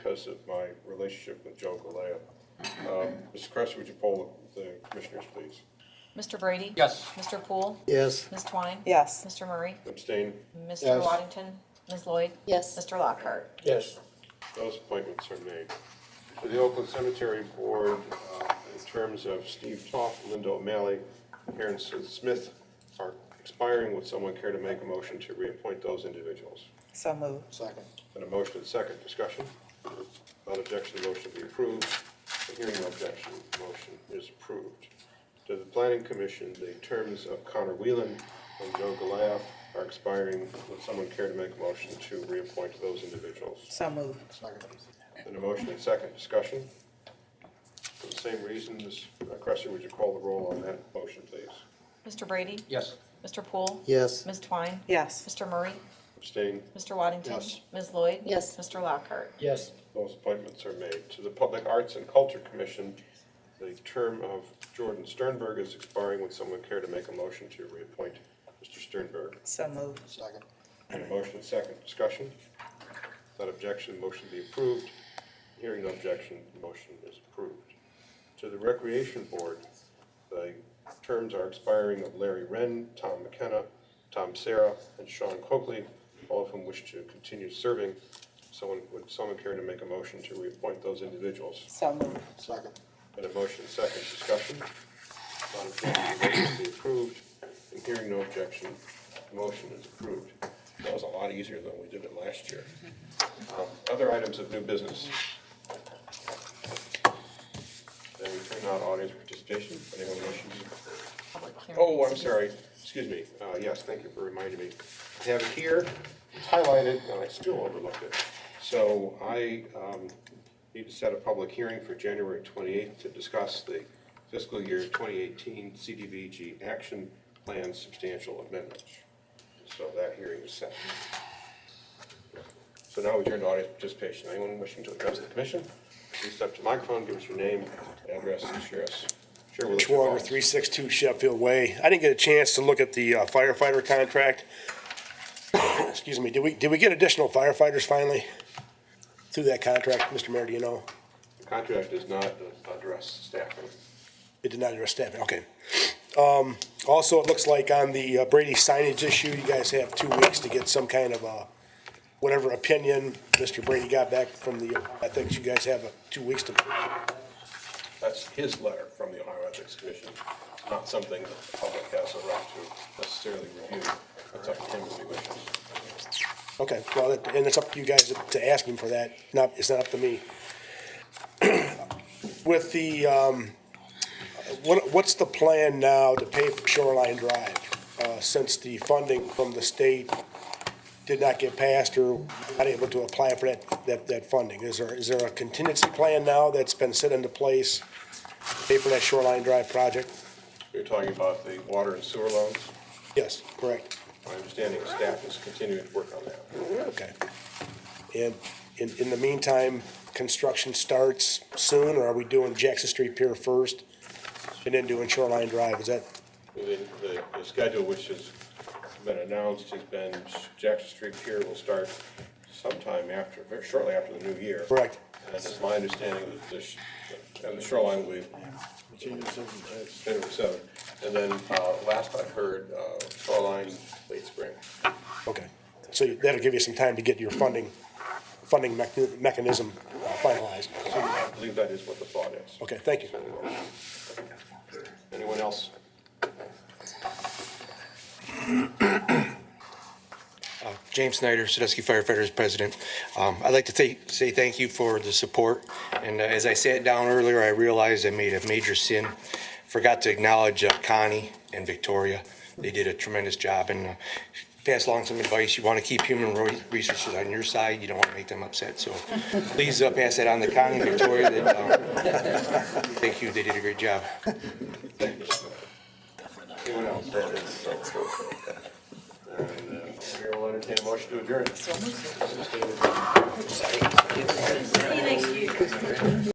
because of my relationship with Joe Galea. Um, Mr. Kress, would you poll the commissioners, please? Mr. Brady? Yes. Mr. Poole? Yes. Ms. Twine? Yes. Mr. Murray? Abstain? Mr. Yes. Waddington? Ms. Lloyd? Yes. Mr. Lockhart? Yes. Those appointments are made. To the Oakland Cemetery Board, uh, in terms of Steve Toff, Linda O'Malley, Karen Smith are expiring. Would someone care to make a motion to reappoint those individuals? So move. Second. And a motion and second discussion. Without objection, the motion be approved. Hearing no objection, the motion is approved. To the planning commission, the terms of Connor Whelan and Joe Goliath are expiring. Would someone care to make a motion to reappoint those individuals? So move. Second. And a motion and second discussion. For the same reasons, Ms. Cresser, would you call the roll on that motion, please? Mr. Brady? Yes. Mr. Poole? Yes. Ms. Twine? Yes. Mr. Murray? Abstain? Mr. Waddington? Yes. Ms. Lloyd? Yes. Mr. Lockhart? Yes. Those appointments are made. To the Public Arts and Culture Commission, the term of Jordan Sternberg is expiring. Would someone care to make a motion to reappoint Mr. Sternberg? So move. Second. And a motion, second, discussion. Without objection, the motion be approved. Hearing no objection, the motion is approved. To the Recreation Board, the terms are expiring of Larry Wren, Tom McKenna, Tom Sarah, and Sean Coakley, all of whom wish to continue serving. Someone, would someone care to make a motion to reappoint those individuals? So move. Second. And a motion second discussion. On objection, the motion be approved, and hearing no objection, the motion is approved. That was a lot easier than we did it last year. Um, Other items of new business. Then we turn on audience participation, If anyone wishes. Public hearing. Oh, I'm sorry, excuse me, uh, yes, thank you for reminding me. I have it here, it's highlighted, and I still overlooked it. So I, um, need to set a public hearing for January twenty-eighth to discuss the fiscal year twenty eighteen CDBG action plan substantial amendments. So that hearing is set. So now we turn to audience participation, anyone wishing to address the commission, please step to the microphone, give us your name, address, and share us. Share with us your Schwager, thoughts. 362 Sheffield Way. I didn't get a chance to look at the uh, firefighter contract. Excuse me, did we, did we get additional firefighters finally through that contract, Mr. Mayor, do you know? The contract does not address staffing. It did not address staffing, okay. Um, Also, it looks like on the uh, Brady signage issue, you guys have two weeks to get some kind of uh whatever opinion Mr. Brady got back from the, I think you guys have uh, two weeks to, That's his letter from the Ohio Ethics Commission, not something that the public has a right to necessarily review. That's up to him if he wishes. okay, well, that- and it's up to you guys to- to ask him for that, not, it's not up to me. With the, um, what, what's the plan now to pay for Shoreline Drive? Uh, since the funding from the state did not get passed or not able to apply for that, that, that funding? Is there, is there a contingency plan now that's been set into place to pay for that Shoreline Drive project? You're talking about the water and sewer loans. Yes, correct, My understanding is staff is continuing to work on that. okay. And in, in the meantime, construction starts soon, or are we doing Jackson Street Pier first and then doing Shoreline Drive? Is that, The, the- the schedule which has been announced has been Jackson Street Pier will start sometime after, very shortly after the new year. Correct. And it's my understanding that this, and the shoreline will be January seventh. And then, uh, last I heard, uh, shoreline late spring. Okay, so you- that'll give you some time to get your funding, funding mech- mechanism uh, finalized. So I believe that is what the thought is. Okay, thank you. Anyone else? Uh, James Snyder, Sadusky Firefighters President. Um, I'd like to th- say thank you for the support. And uh, as I sat down earlier, I realized I made a major sin. Forgot to acknowledge uh, Connie and Victoria. They did a tremendous job and uh, passed along some advice. You want to keep human ro- resources on your side. You don't want to make them upset. So please uh, pass that on to Connie and Victoria. that, um, thank you. They did a great job. Anyone else? uh, All right, uh, Mayor will entertain a motion to adjourn.